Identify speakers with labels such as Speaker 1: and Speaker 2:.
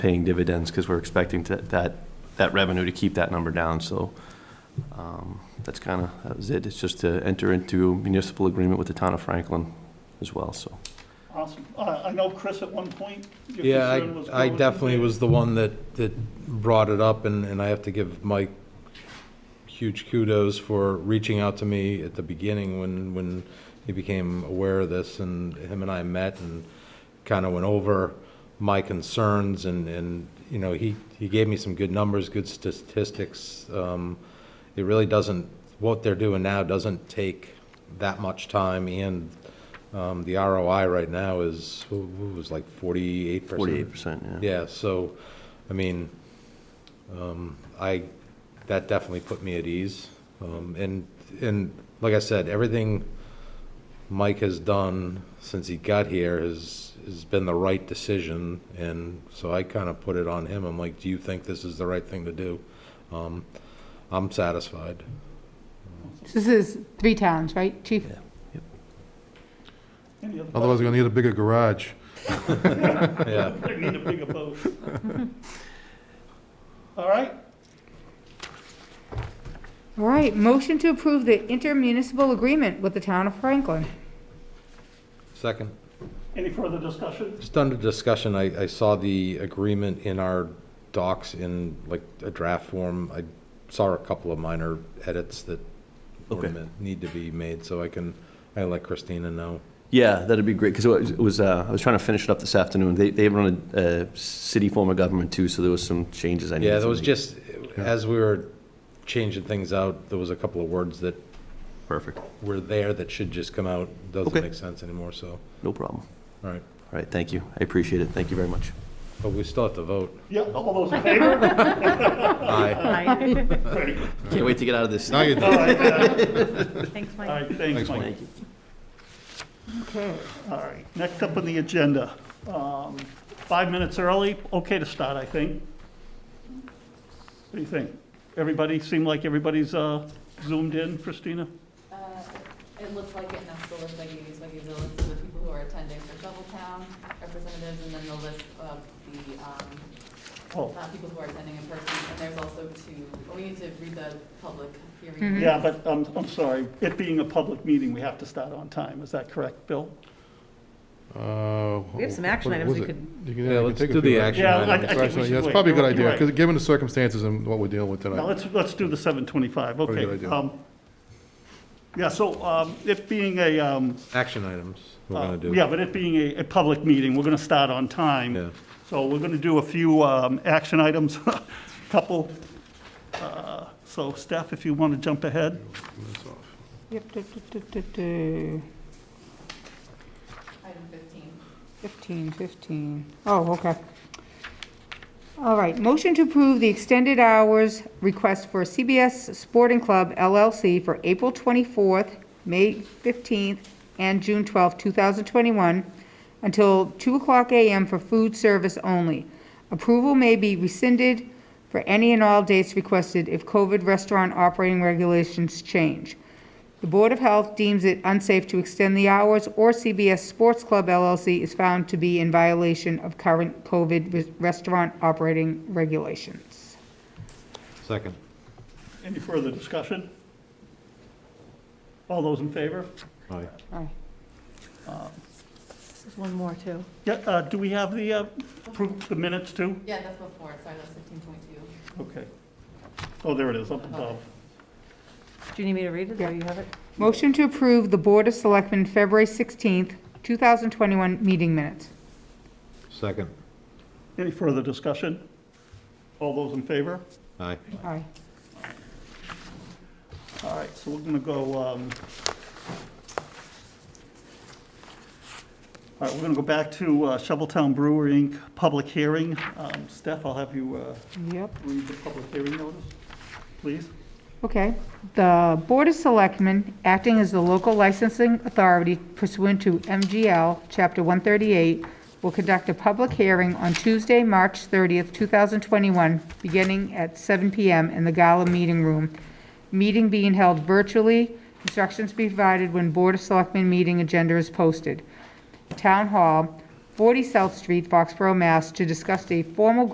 Speaker 1: paying dividends because we're expecting to- that, that revenue to keep that number down. So um, that's kind of, that was it. It's just to enter into municipal agreement with the town of Franklin as well, so.
Speaker 2: Awesome. Uh, I know Chris at one point, your
Speaker 3: Yeah,
Speaker 2: concern was.
Speaker 3: I, I
Speaker 2: going to
Speaker 3: definitely
Speaker 2: the-
Speaker 3: was the one that, that brought it up, and, and I have to give Mike huge kudos for reaching out to me at the beginning when, when he became aware of this, and him and I met and kind of went over my concerns, and, and, you know, he, he gave me some good numbers, good statistics. Um, It really doesn't, what they're doing now doesn't take that much time, and um, the ROI right now is, who who was like forty-eight percent?
Speaker 1: Forty-eight percent, yeah.
Speaker 3: Yeah, so, I mean, um, I, that definitely put me at ease. Um, and, and like I said, everything Mike has done since he got here has, has been the right decision. And so I kind of put it on him. I'm like, do you think this is the right thing to do? Um, I'm satisfied.
Speaker 4: This is three towns, right, chief?
Speaker 1: Yeah.
Speaker 2: Any other
Speaker 5: Otherwise, we're gonna need a bigger garage.
Speaker 3: Yeah.
Speaker 2: They need a bigger boat. All right,
Speaker 4: All right, motion to approve the intermunicipal agreement with the town of Franklin.
Speaker 3: Second.
Speaker 2: any further discussion?
Speaker 3: Just under discussion, I, I saw the agreement in our docs in like a draft form. I saw a couple of minor edits that were
Speaker 1: Okay.
Speaker 3: meant- need to be made, so I can, I let Christina know.
Speaker 1: Yeah, that'd be great, because it was, uh, I was trying to finish it up this afternoon. They, they run a uh, city form of government too, so there was some changes I needed to
Speaker 3: Yeah,
Speaker 1: make.
Speaker 3: there was just, as we were changing things out, there was a couple of words that
Speaker 1: Perfect,
Speaker 3: were there that should just come out. Doesn't
Speaker 1: Okay.
Speaker 3: make sense anymore, so,
Speaker 1: no problem.
Speaker 3: all right.
Speaker 1: All right, thank you. I appreciate it. Thank you very much.
Speaker 3: But we still have to vote.
Speaker 2: Yeah, all those in favor?
Speaker 3: Aye.
Speaker 2: Great.
Speaker 1: Can't wait to get out of this.
Speaker 5: Now you're
Speaker 2: All
Speaker 5: done.
Speaker 2: right, uh,
Speaker 4: Thanks,
Speaker 2: all right, thanks,
Speaker 5: Thanks,
Speaker 2: Mike.
Speaker 1: Thank you.
Speaker 4: Okay.
Speaker 2: All right, next up on the agenda, um, five minutes early, okay to start, I think. What do you think? Everybody, seem like everybody's uh, zoomed in, Christina?
Speaker 6: Uh, It looks like it, and that's the list I gave you, so I gave the list of the people who are attending for Shoveltown representatives, and then the list of the, um,
Speaker 2: Oh,
Speaker 6: uh, people who are attending in person, and there's also two, oh, we need to read the public hearing.
Speaker 4: Mhm.
Speaker 2: yeah, but I'm, I'm sorry, it being a public meeting, we have to start on time, is that correct, Bill?
Speaker 5: We
Speaker 7: have some action items we could-
Speaker 5: You
Speaker 3: Yeah,
Speaker 5: can, you can
Speaker 3: let's
Speaker 5: take a
Speaker 3: do
Speaker 5: few
Speaker 3: the
Speaker 5: minutes.
Speaker 3: action
Speaker 2: Yeah, I-
Speaker 3: items.
Speaker 2: I- think we should
Speaker 5: Yeah, it's
Speaker 2: wait.
Speaker 5: probably a good
Speaker 2: You're
Speaker 5: idea,
Speaker 2: right.
Speaker 5: because given the circumstances and what we're dealing with
Speaker 2: Now,
Speaker 5: tonight.
Speaker 2: let's, let's do the 725,
Speaker 5: Pretty good
Speaker 2: okay.
Speaker 5: idea.
Speaker 2: um, Yeah, so um, it being a, um,
Speaker 3: Action items, we're
Speaker 2: uh,
Speaker 3: gonna do.
Speaker 2: yeah, but it being a, a public meeting, we're going to start on time.
Speaker 3: Yeah.
Speaker 2: So we're going to do a few um, action items, couple. Uh, So Steph, if you want to jump ahead.
Speaker 4: Yep, duh, duh, duh, duh, duh.
Speaker 6: Item fifteen.
Speaker 4: 15, 15. Oh, okay. All right, motion to approve the extended hours request for CBS Sporting Club LLC for April 24th, May 15th, and June 12th, 2021, until 2 o'clock a.m. for food service only. Approval may be rescinded for any and all dates requested if COVID restaurant operating regulations change. The Board of Health deems it unsafe to extend the hours, or CBS Sports Club LLC is found to be in violation of current COVID res- restaurant operating regulations.
Speaker 3: Second.
Speaker 2: Any further discussion? All those in favor?
Speaker 3: Aye.
Speaker 4: All right.
Speaker 7: There's one more, too.
Speaker 2: Yeah, uh, do we have the, uh, proof, the minutes too?
Speaker 6: Yeah, that's before, sorry, that's fifteen point two.
Speaker 2: Okay. Oh, there it is, up above.
Speaker 7: Do you need me to read it, or you have it?
Speaker 4: Motion to approve the Board of Selectmen February 16th, 2021 meeting minutes.
Speaker 3: Second.
Speaker 2: Any further discussion? All those in favor?
Speaker 3: Aye.
Speaker 4: All right.
Speaker 2: All right, so we're gonna go, um, all right, we're gonna go back to uh, Shoveltown Brewery Inc. public hearing. Um, Steph, I'll have you, uh,
Speaker 4: Yep.
Speaker 2: read the public hearing notice, please.
Speaker 4: Okay. The Board of Selectmen, acting as the local licensing authority pursuant to MGL Chapter 138, will conduct a public hearing on Tuesday, March 30th, 2021, beginning at 7 PM in the Gala Meeting Room. Meeting being held virtually. Instructions be provided when Board of Selectmen meeting agenda is posted. Town Hall, 40 South Street, Foxborough, Mass., to discuss a formal